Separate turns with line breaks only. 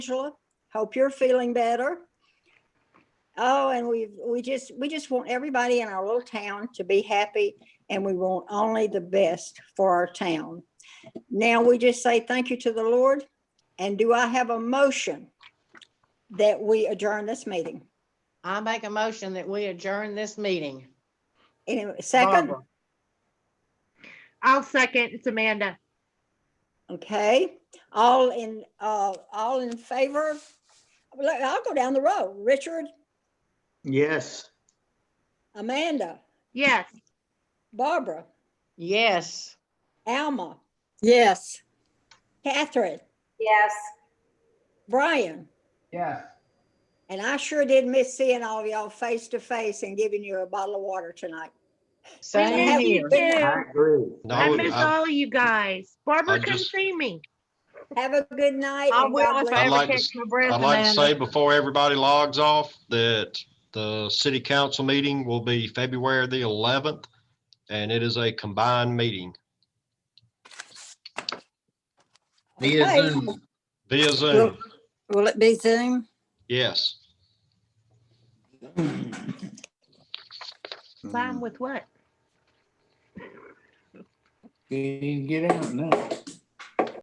Angela. Hope you're feeling better. Oh, and we, we just, we just want everybody in our little town to be happy and we want only the best for our town. Now we just say thank you to the Lord. And do I have a motion that we adjourn this meeting?
I make a motion that we adjourn this meeting.
Anyway, second,
Barbara.
I'll second. It's Amanda.
okay, all in, uh, all in favor? Well, I'll go down the row. Richard,
Yes.
Amanda,
Yes.
Barbara,
Yes.
Alma,
Yes.
Catherine.
Yes.
Brian,
Yes.
and I sure did miss seeing all of y'all face to face and giving you a bottle of water tonight.
Same
Thank you.
here.
Yeah.
I agree.
I
No,
miss
I-
all of you guys. Barbara
I
couldn't
just-
see me.
Have a good night.
I
and
will
God
if
bless
I
I'd
ever
like to
catch
s-
my breath.
I'd like to say
Amanda.
before everybody logs off that the city council meeting will be February the eleventh, and it is a combined meeting
you.
Via Zoom.
via Zoom.
Will will it be Zoom?
Yes.
Mine with what?
Can you get out now?